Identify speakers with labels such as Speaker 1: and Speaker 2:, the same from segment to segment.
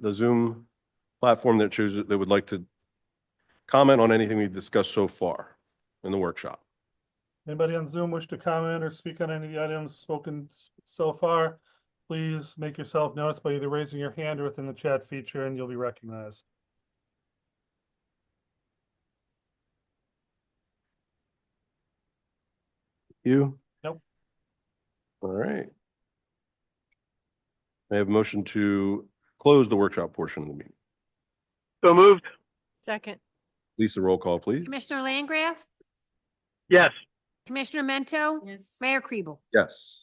Speaker 1: the Zoom platform that chooses, that would like to comment on anything we've discussed so far in the workshop?
Speaker 2: Anybody on Zoom wish to comment or speak on any of the items spoken s- so far? Please make yourself noticed by either raising your hand or within the chat feature and you'll be recognized.
Speaker 1: You?
Speaker 2: Nope.
Speaker 1: All right. May I have a motion to close the workshop portion of the meeting.
Speaker 3: So moved.
Speaker 4: Second,
Speaker 1: Lisa, roll call, please.
Speaker 5: Commissioner Langgraf?
Speaker 3: Yes.
Speaker 5: Commissioner Mento?
Speaker 4: yes.
Speaker 5: Mayor Kribel?
Speaker 1: Yes.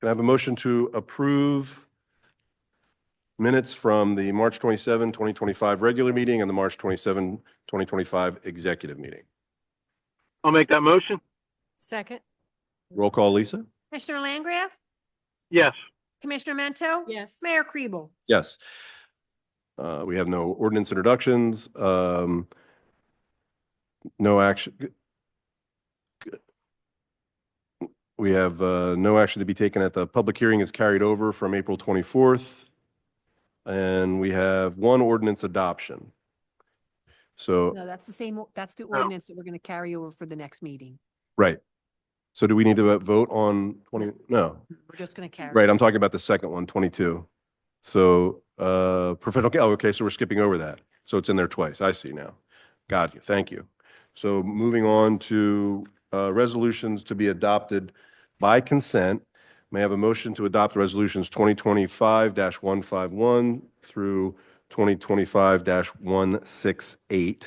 Speaker 1: Can I have a motion to approve minutes from the March 27, 2025 regular meeting and the March 27, 2025 executive meeting?
Speaker 3: I'll make that motion.
Speaker 4: Second,
Speaker 1: Roll call, Lisa?
Speaker 5: Commissioner Langgraf?
Speaker 3: Yes.
Speaker 5: Commissioner Mento?
Speaker 4: yes.
Speaker 5: Mayor Kribel?
Speaker 1: Yes. Uh, We have no ordinance introductions. um, No action. We have uh, no action to be taken at the public hearing is carried over from April 24th. And we have one ordinance adoption. So,
Speaker 5: No, that's the same, o- that's the
Speaker 3: No.
Speaker 5: ordinance that we're going to carry over for the next meeting.
Speaker 1: right. So do we need to uh, vote on 20? No.
Speaker 5: We're just going to carry.
Speaker 1: Right, I'm talking about the second one, 22. So, uh, professional, oh, okay, so we're skipping over that. So it's in there twice. I see now. Got you. Thank you. So moving on to, uh, resolutions to be adopted by consent. May I have a motion to adopt resolutions 2025-151 through 2025-168?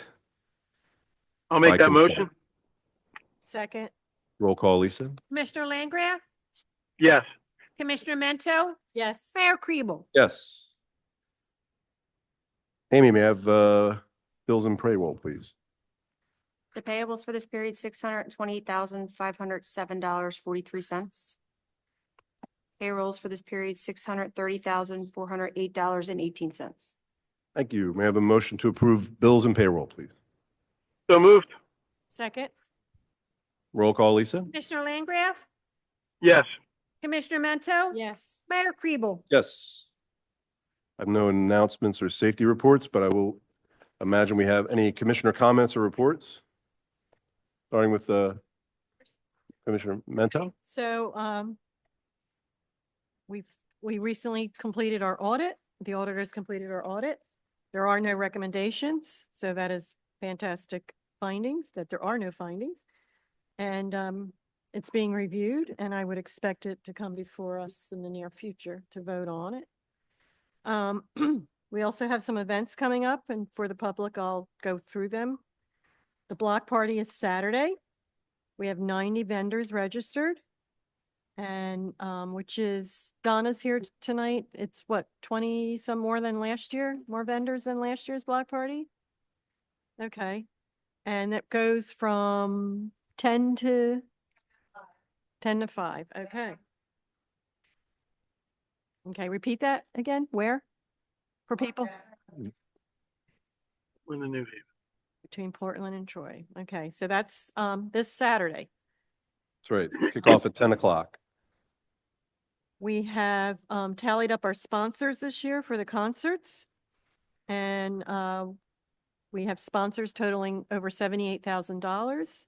Speaker 3: I'll
Speaker 1: By
Speaker 3: make that
Speaker 1: consent.
Speaker 3: motion.
Speaker 4: Second,
Speaker 1: Roll call, Lisa?
Speaker 5: Commissioner Langgraf?
Speaker 3: Yes.
Speaker 5: Commissioner Mento?
Speaker 4: yes.
Speaker 5: Mayor Kribel?
Speaker 1: Yes. Amy, may I have, uh, bills and payroll, please?
Speaker 6: The payables for this period, six hundred and twenty thousand, five hundred seven dollars, forty-three cents. Payrolls for this period, six hundred thirty thousand, four hundred eight dollars and eighteen cents.
Speaker 1: Thank you. May I have a motion to approve bills and payroll, please?
Speaker 3: So moved.
Speaker 4: Second,
Speaker 1: Roll call, Lisa?
Speaker 5: Commissioner Langgraf?
Speaker 3: Yes.
Speaker 5: Commissioner Mento?
Speaker 4: yes.
Speaker 5: Mayor Kribel?
Speaker 1: Yes. I have no announcements or safety reports, but I will imagine we have any commissioner comments or reports? Starting with uh, Commissioner Mento?
Speaker 4: So, um, we've, we recently completed our audit. The auditors completed our audit. There are no recommendations, so that is fantastic findings, that there are no findings. And, um, it's being reviewed and I would expect it to come before us in the near future to vote on it. Um, we also have some events coming up and for the public, I'll go through them. The block party is Saturday. We have ninety vendors registered. And, um, which is, Donna's here t- tonight. It's what, twenty some more than last year? More vendors than last year's block party? Okay. And it goes from ten to? Ten to five, okay. Okay, repeat that again. Where? For people?
Speaker 3: We're in the new view.
Speaker 4: Between Portland and Troy. Okay, so that's, um, this Saturday.
Speaker 1: That's right. Kick off at 10 o'clock.
Speaker 4: We have um tallied up our sponsors this year for the concerts. And uh, we have sponsors totaling over seventy-eight thousand dollars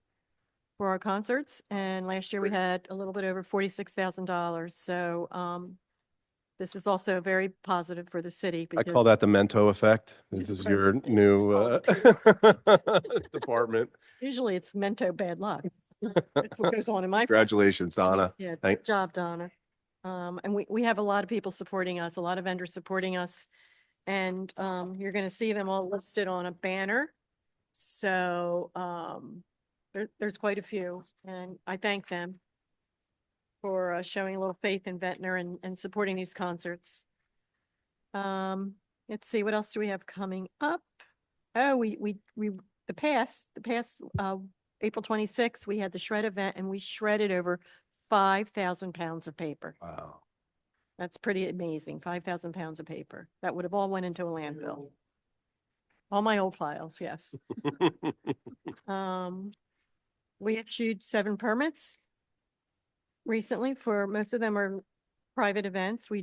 Speaker 4: for our concerts. And last year we had a little bit over forty-six thousand dollars. So um, this is also very positive for the city.
Speaker 1: I call
Speaker 4: because-
Speaker 1: that the Mento effect. This is your new uh, department.
Speaker 4: Usually it's mento bad luck. That's what goes on in my.
Speaker 1: Congratulations, Donna.
Speaker 4: Yeah,
Speaker 1: Thank-
Speaker 4: good job, Donna. Um, and we, we have a lot of people supporting us, a lot of vendors supporting us. And, um, you're gonna see them all listed on a banner. So, um, there, there's quite a few and I thank them for uh, showing a little faith in Ventnor and, and supporting these concerts. Um, let's see, what else do we have coming up? Oh, we, we, we, the past, the past, uh, April twenty-sixth, we had the shred event and we shredded over five thousand pounds of paper.
Speaker 1: Wow.
Speaker 4: That's pretty amazing, five thousand pounds of paper. That would have all went into a landfill. All my old files, yes. Um, we issued seven permits recently for, most of them are private events. We